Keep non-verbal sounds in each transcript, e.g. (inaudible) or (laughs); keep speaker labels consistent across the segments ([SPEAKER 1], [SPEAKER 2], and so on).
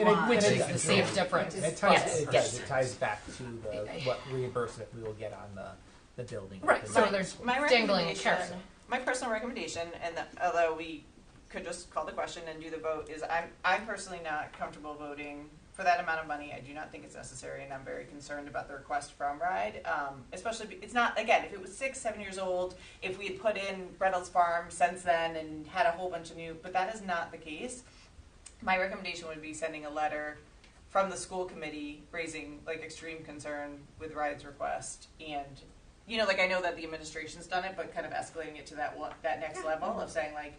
[SPEAKER 1] And it-
[SPEAKER 2] line,
[SPEAKER 1] which
[SPEAKER 2] and
[SPEAKER 1] is
[SPEAKER 2] it-
[SPEAKER 1] the safe difference.
[SPEAKER 2] It ties,
[SPEAKER 1] Yes,
[SPEAKER 2] it
[SPEAKER 1] yes.
[SPEAKER 2] does, it ties back to the, what reimbursement we will get on the, the building.
[SPEAKER 1] Right, so
[SPEAKER 2] Right.
[SPEAKER 1] there's
[SPEAKER 3] My
[SPEAKER 1] dangling a
[SPEAKER 3] recommendation,
[SPEAKER 1] carrot.
[SPEAKER 3] my personal recommendation, and the- although we could just call the question and do the vote, is I'm, I'm personally not comfortable voting for that amount of money. I do not think it's necessary, and I'm very concerned about the request from RIDE. Um, especially, be- it's not, again, if it was six, seven years old, if we had put in Reynolds Farm since then and had a whole bunch of new, but that is not the case. My recommendation would be sending a letter from the school committee raising like extreme concern with Ride's request and you know, like I know that the administration's done it, but kind of escalating it to that one, that next level of saying like,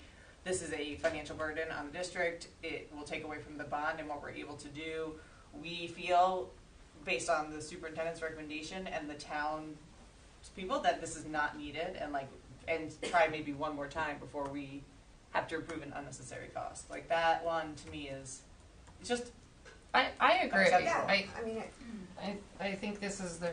[SPEAKER 3] this is a financial burden on the district. It will take away from the bond and what we're able to do. We feel, based on the superintendent's recommendation and the town people, that this is not needed and like, and try maybe one more time before we have to approve an unnecessary cost. Like that one to me is, it's just,
[SPEAKER 1] I, I agree.
[SPEAKER 3] Acceptable.
[SPEAKER 1] I,
[SPEAKER 4] I mean, it-
[SPEAKER 1] I, I think this is the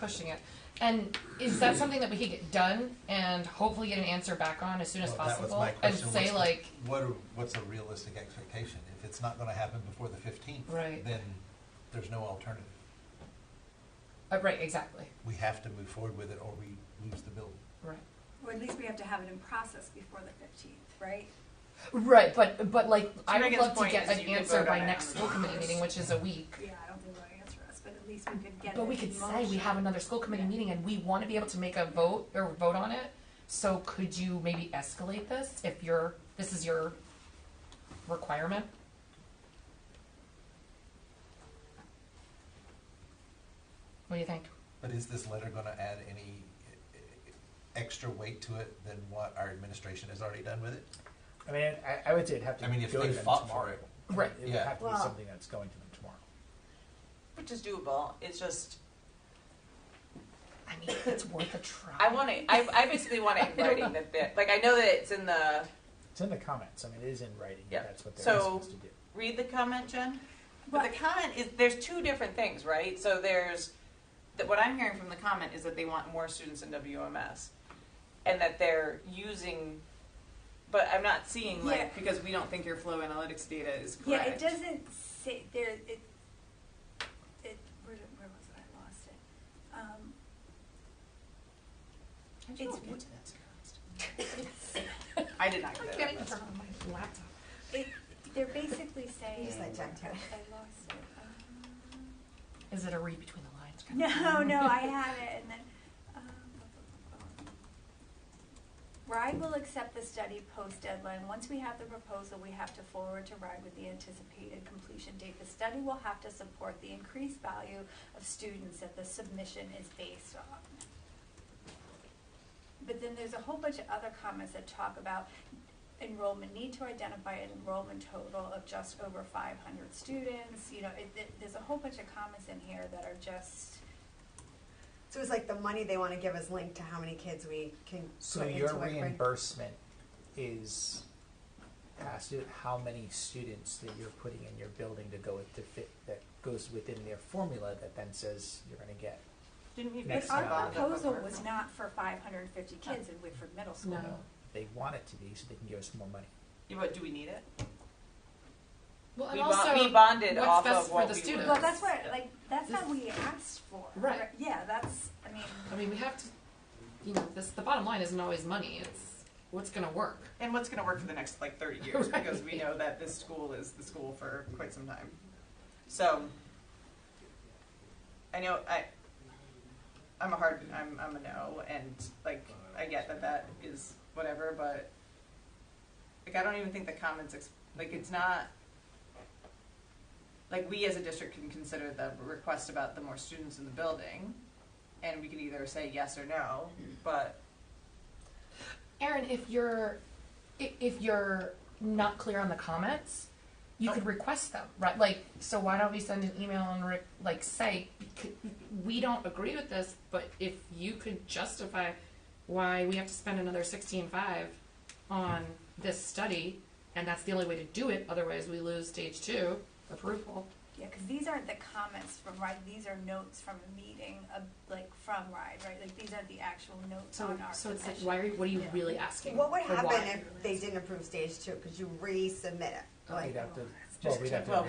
[SPEAKER 1] pushing it. And is
[SPEAKER 5] Mm.
[SPEAKER 1] that something that we could get done and hopefully get an answer back on as soon as
[SPEAKER 5] Well, that was
[SPEAKER 1] possible?
[SPEAKER 5] my
[SPEAKER 1] And
[SPEAKER 5] question,
[SPEAKER 1] say
[SPEAKER 5] what's the-
[SPEAKER 1] like,
[SPEAKER 5] What are, what's a realistic expectation? If it's not gonna happen before the fifteenth,
[SPEAKER 1] Right.
[SPEAKER 5] then there's no alternative.
[SPEAKER 1] uh, right, exactly,
[SPEAKER 5] We have to move forward with it or we lose the building.
[SPEAKER 1] right.
[SPEAKER 6] Or at least we have to have it in process before the fifteenth, right?
[SPEAKER 1] Right, but, but like, I would
[SPEAKER 3] Megan's
[SPEAKER 1] love to
[SPEAKER 3] point
[SPEAKER 1] get
[SPEAKER 3] is
[SPEAKER 1] an
[SPEAKER 3] you could
[SPEAKER 1] answer
[SPEAKER 3] vote
[SPEAKER 1] by
[SPEAKER 3] on it
[SPEAKER 1] next
[SPEAKER 3] on
[SPEAKER 1] school committee meeting, which is a week.
[SPEAKER 6] Yeah, I don't think they'll answer us, but at least we could get.
[SPEAKER 1] But we
[SPEAKER 6] it
[SPEAKER 1] could
[SPEAKER 6] in
[SPEAKER 1] say we
[SPEAKER 6] motion.
[SPEAKER 1] have another school committee meeting and we want to be able to make a vote or vote on it. So could you maybe escalate this if your, this is your requirement? What do you think?
[SPEAKER 5] But is this letter gonna add any eh, eh, extra weight to it than what our administration has already done with it?
[SPEAKER 2] I mean, I, I would say it'd have to
[SPEAKER 5] I mean, if
[SPEAKER 2] go to
[SPEAKER 5] they
[SPEAKER 2] them
[SPEAKER 5] fought for
[SPEAKER 2] tomorrow.
[SPEAKER 5] it,
[SPEAKER 2] I mean,
[SPEAKER 1] Right.
[SPEAKER 2] It would
[SPEAKER 5] Yeah.
[SPEAKER 2] have to be
[SPEAKER 4] Well-
[SPEAKER 2] something that's going to them tomorrow.
[SPEAKER 3] which is doable. It's just,
[SPEAKER 1] I mean, it's worth a try.
[SPEAKER 3] I want it, I, I basically want it in writing that, that, like, I know that it's in the,
[SPEAKER 2] It's in the comments, I mean, it is in writing,
[SPEAKER 3] Yeah.
[SPEAKER 2] that's what they're
[SPEAKER 3] So-
[SPEAKER 2] supposed to do.
[SPEAKER 3] read the comment, Jen? But
[SPEAKER 6] Well,
[SPEAKER 3] the comment is there's two different things, right? So there's that what I'm hearing from the comment is that they want more students in WMS and that they're using but I'm not seeing like
[SPEAKER 6] Yeah.
[SPEAKER 3] because we don't think your flow analytics data is
[SPEAKER 6] yeah,
[SPEAKER 3] correct.
[SPEAKER 6] it doesn't say there. It, it where, did- where was it? I lost it. Um,
[SPEAKER 3] I
[SPEAKER 6] did not get
[SPEAKER 3] to that I did not get that.
[SPEAKER 1] Turn on my laptop.
[SPEAKER 6] Um, it, they're basically saying.
[SPEAKER 4] Just let Jen tell you.
[SPEAKER 6] I lost it. Um,
[SPEAKER 1] Is it a read between the lines? kind (laughs) of
[SPEAKER 6] No,
[SPEAKER 1] thing?
[SPEAKER 6] (laughs) no, I have it, and then. um, RIDE will accept the study post deadline. Once we have the proposal, we have to forward to RIDE with the anticipated completion date. The study will have to support the increased value of students that the submission is based on. But then there's a whole bunch of other comments that talk about enrollment, need to identify an enrollment total of just over five hundred students, you know, it, it, there's a whole bunch of comments in here that are just,
[SPEAKER 4] so it's like the money they wanna give is linked to how many kids we can
[SPEAKER 2] So
[SPEAKER 4] put into
[SPEAKER 2] your
[SPEAKER 4] a grade.
[SPEAKER 2] reimbursement is, has to, how many students that you're putting in your building to go with the fit, that goes within their formula that then says you're gonna get.
[SPEAKER 3] Didn't we
[SPEAKER 2] Next
[SPEAKER 3] put
[SPEAKER 6] but our
[SPEAKER 2] time.
[SPEAKER 3] bond up
[SPEAKER 6] proposal
[SPEAKER 3] over-
[SPEAKER 6] was not for five hundred and fifty kids in Whitford Middle School.
[SPEAKER 1] No.
[SPEAKER 2] They want it to be so they can give us more money.
[SPEAKER 3] Yeah, but do we need it?
[SPEAKER 1] Well, and
[SPEAKER 3] we, bond-
[SPEAKER 1] also,
[SPEAKER 3] we bonded
[SPEAKER 1] what's
[SPEAKER 3] off
[SPEAKER 1] best
[SPEAKER 3] of
[SPEAKER 1] for
[SPEAKER 3] what
[SPEAKER 1] the
[SPEAKER 3] we
[SPEAKER 1] students?
[SPEAKER 3] were-
[SPEAKER 6] Well, that's what, like, that's
[SPEAKER 1] This-
[SPEAKER 6] not what we asked for.
[SPEAKER 1] Right.
[SPEAKER 6] Yeah, that's, I mean,
[SPEAKER 1] I mean, we have to, you know, this, the bottom line isn't always money, it's what's gonna work.
[SPEAKER 3] And what's going to work for the next like 30 years
[SPEAKER 1] Right.
[SPEAKER 3] because we know that this school is the school for quite some time. So I know I I'm a hard I'm I'm a no and like I get that that is whatever but like I don't even think the comments ex- like it's not like we as a district can consider the request about the more students in the building and we can either say yes or no but
[SPEAKER 1] Aaron, if you're i- if you're not clear on the comments, you
[SPEAKER 4] Oh.
[SPEAKER 1] could request them, right? Like, so why don't we send an email and re- like say "C- we don't agree with this, but if you could justify why we have to spend another sixteen five on this study, and that's the only way to do it. Otherwise, we lose stage two approval.
[SPEAKER 6] yeah, because these aren't the comments from RIDE, these are notes from a meeting of, like, from RIDE, right? Like, these are the actual notes
[SPEAKER 1] So
[SPEAKER 6] on our
[SPEAKER 1] so it's like,
[SPEAKER 6] submission.
[SPEAKER 1] why are you, what are you
[SPEAKER 6] Yeah.
[SPEAKER 1] really asking?
[SPEAKER 4] What would
[SPEAKER 1] Or why?
[SPEAKER 4] happen if they didn't approve stage two, cause you resubmit it? Like-
[SPEAKER 2] We'd have to,
[SPEAKER 6] that's
[SPEAKER 2] well, we'd have to.
[SPEAKER 3] Well,